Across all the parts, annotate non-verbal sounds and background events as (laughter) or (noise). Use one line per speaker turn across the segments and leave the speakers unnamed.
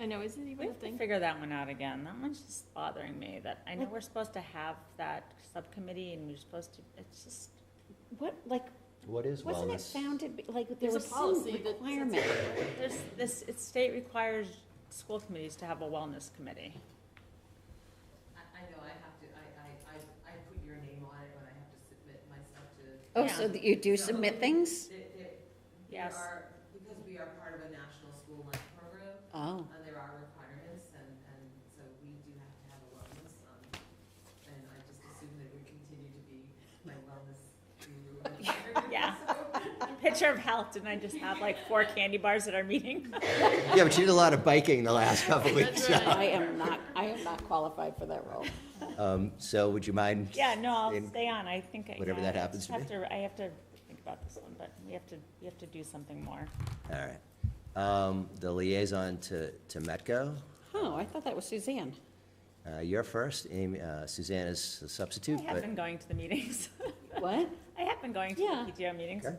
I know, is it
We
even a
have to
thing?
figure that one out again. That one's just bothering me, that I know we're supposed to have that subcommittee and we're supposed to, it's just,
What, like,
What is
wasn't it
wellness?
founded, be- like, there
There's a
was some
policy that.
requirement?
there's, this, it's state requires school committees to have a wellness committee.
I, I know, I have to, I, I, I, I put your name on it when I have to submit myself to.
Oh, so
Yeah.
that you do submit things?
There, there, there
Yes.
are, because we are part of a national school lunch program,
Oh,
uh, there are requirements and, and so we do have to have a wellness, um, and I just assume that we continue to be my wellness guru.
(laughs) Yeah.
(laughs) So-
Picture of health, didn't I just have like four candy bars at our meeting?
(laughs)
(laughs)
Yeah, but you did a lot of biking the last couple of weeks.
That's right.
(laughs) I am not, I am not qualified for that role.
Um, so would you mind?
Yeah, no, I'll
in-
stay on, I think. I-
Whatever
yeah,
that
I
happens
just
to
have
be.
I have to think about this one, but we have to, we have to do something more.
All right. Um, the liaison to, to Metco,
Oh, I thought that was Suzanne.
uh, you're first, Amy, uh, Suzanne is the
I
substitute,
have
but,
been going to the meetings. (laughs)
What?
I have been going to the
Yeah.
PTO meetings.
okay.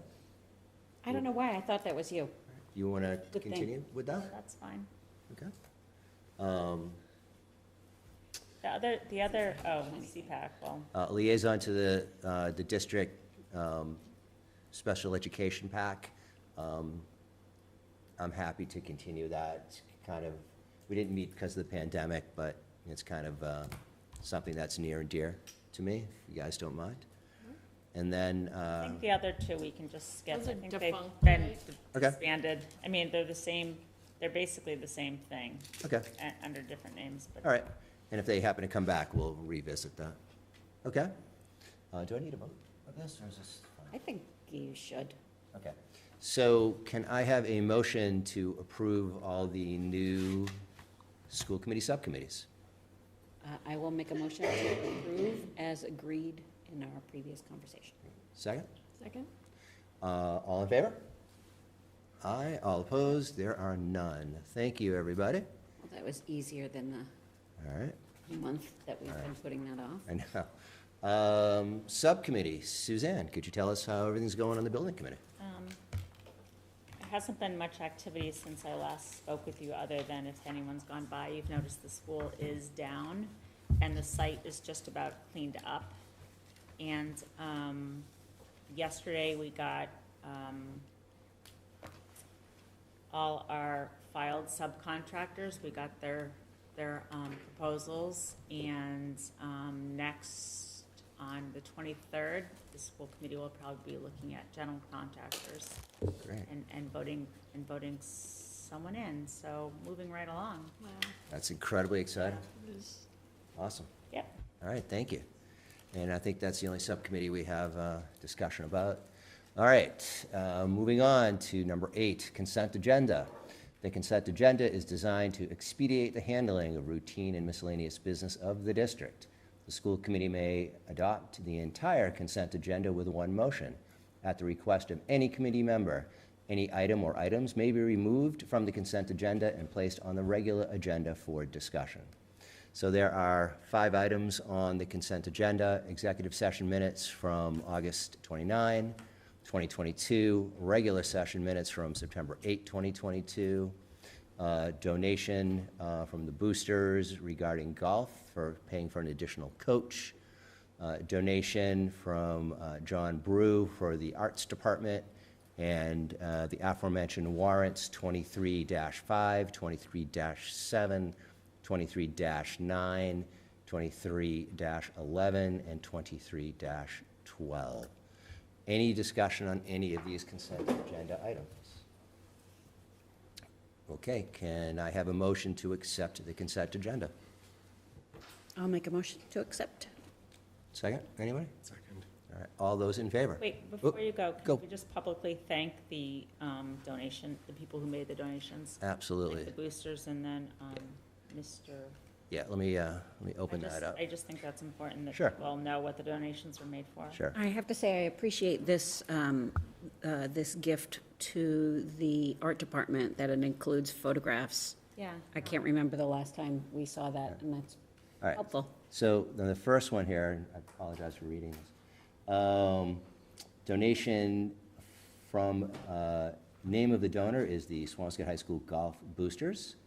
I don't know why, I thought that was you.
You wanna
thing.
continue with that?
That's fine.
Okay. Um,
The other, the other, oh, CPAC, well,
uh, liaison to the, uh, the district, um, special education pack. Um, I'm happy to continue that. It's kind of, we didn't meet because of the pandemic, but it's kind of, uh, something that's near and dear to me, if you guys don't mind. And then,
I
uh,
think the other two we can just skip.
Those are
I think they've
defunct,
been
right?
Okay.
disbanded. I mean, they're the same, they're basically the same thing,
okay,
uh, under different names, but.
all right. And if they happen to come back, we'll revisit that. Okay? Uh, do I need a vote of this, or is this? fine?
I think you should.
Okay. So can I have a motion to approve all the new school committee subcommittees?
Uh, I will make a motion to approve as agreed in our previous conversation.
Second?
Second?
Uh, All in favor? Aye. All opposed? There are none. Thank you, everybody.
Well, That was easier than
All right,
the month that we've been putting that off.
I know. Um, Subcommittee, Suzanne, could you tell us how everything's going on the building committee?
Um, There hasn't been much activity since I last spoke with you, other than if anyone's gone by, you've noticed the school is down, and the site is just about cleaned up. And um, yesterday, we got um, all our filed subcontractors, we got their, their um, proposals. And um, next, on the 23rd, the school committee will probably be looking at general contractors
Great.
and, and voting, and voting someone in, so moving right along.
Wow.
That's incredibly exciting.
This-
Awesome.
Yep.
All right, thank you. And I think that's the only subcommittee we have uh, discussion about. All right, uh, moving on to number eight, consent agenda. The consent agenda is designed to expedite the handling of routine and miscellaneous business of the district. The school committee may adopt the entire consent agenda with one motion. At the request of any committee member, any item or items may be removed from the consent agenda and placed on the regular agenda for discussion. So there are five items on the consent agenda, executive session minutes from August 29, 2022, regular session minutes from September 8, 2022, uh, donation uh, from the boosters regarding golf for paying for an additional coach, uh, donation from uh, John Brew for the Arts Department, and uh, the aforementioned warrants 23-5, 23-7, 23-9, 23-11, and 23-12. Any discussion on any of these consent agenda items? Okay, can I have a motion to accept the consent agenda?
I'll make a motion to accept.
Second, anybody? Second. All right, all those in favor?
Wait,
Oh,
before you go,
go.
can we just publicly thank the um, donation, the people who made the donations? Like
Absolutely.
the boosters and then um, Mr.
Yeah, let me, uh, let me open
I just-
that up.
I just think that's important that
Sure.
people all know what the donations were made for.
Sure.
I have to say, I appreciate this, um, uh, this gift to the art department, that it includes photographs.
Yeah.
I can't remember the last time we saw that, and that's
All right.
helpful.
So then the first one here, and I apologize for reading this. Um, Donation from, uh, name of the donor is the Swampscott High School Golf Boosters.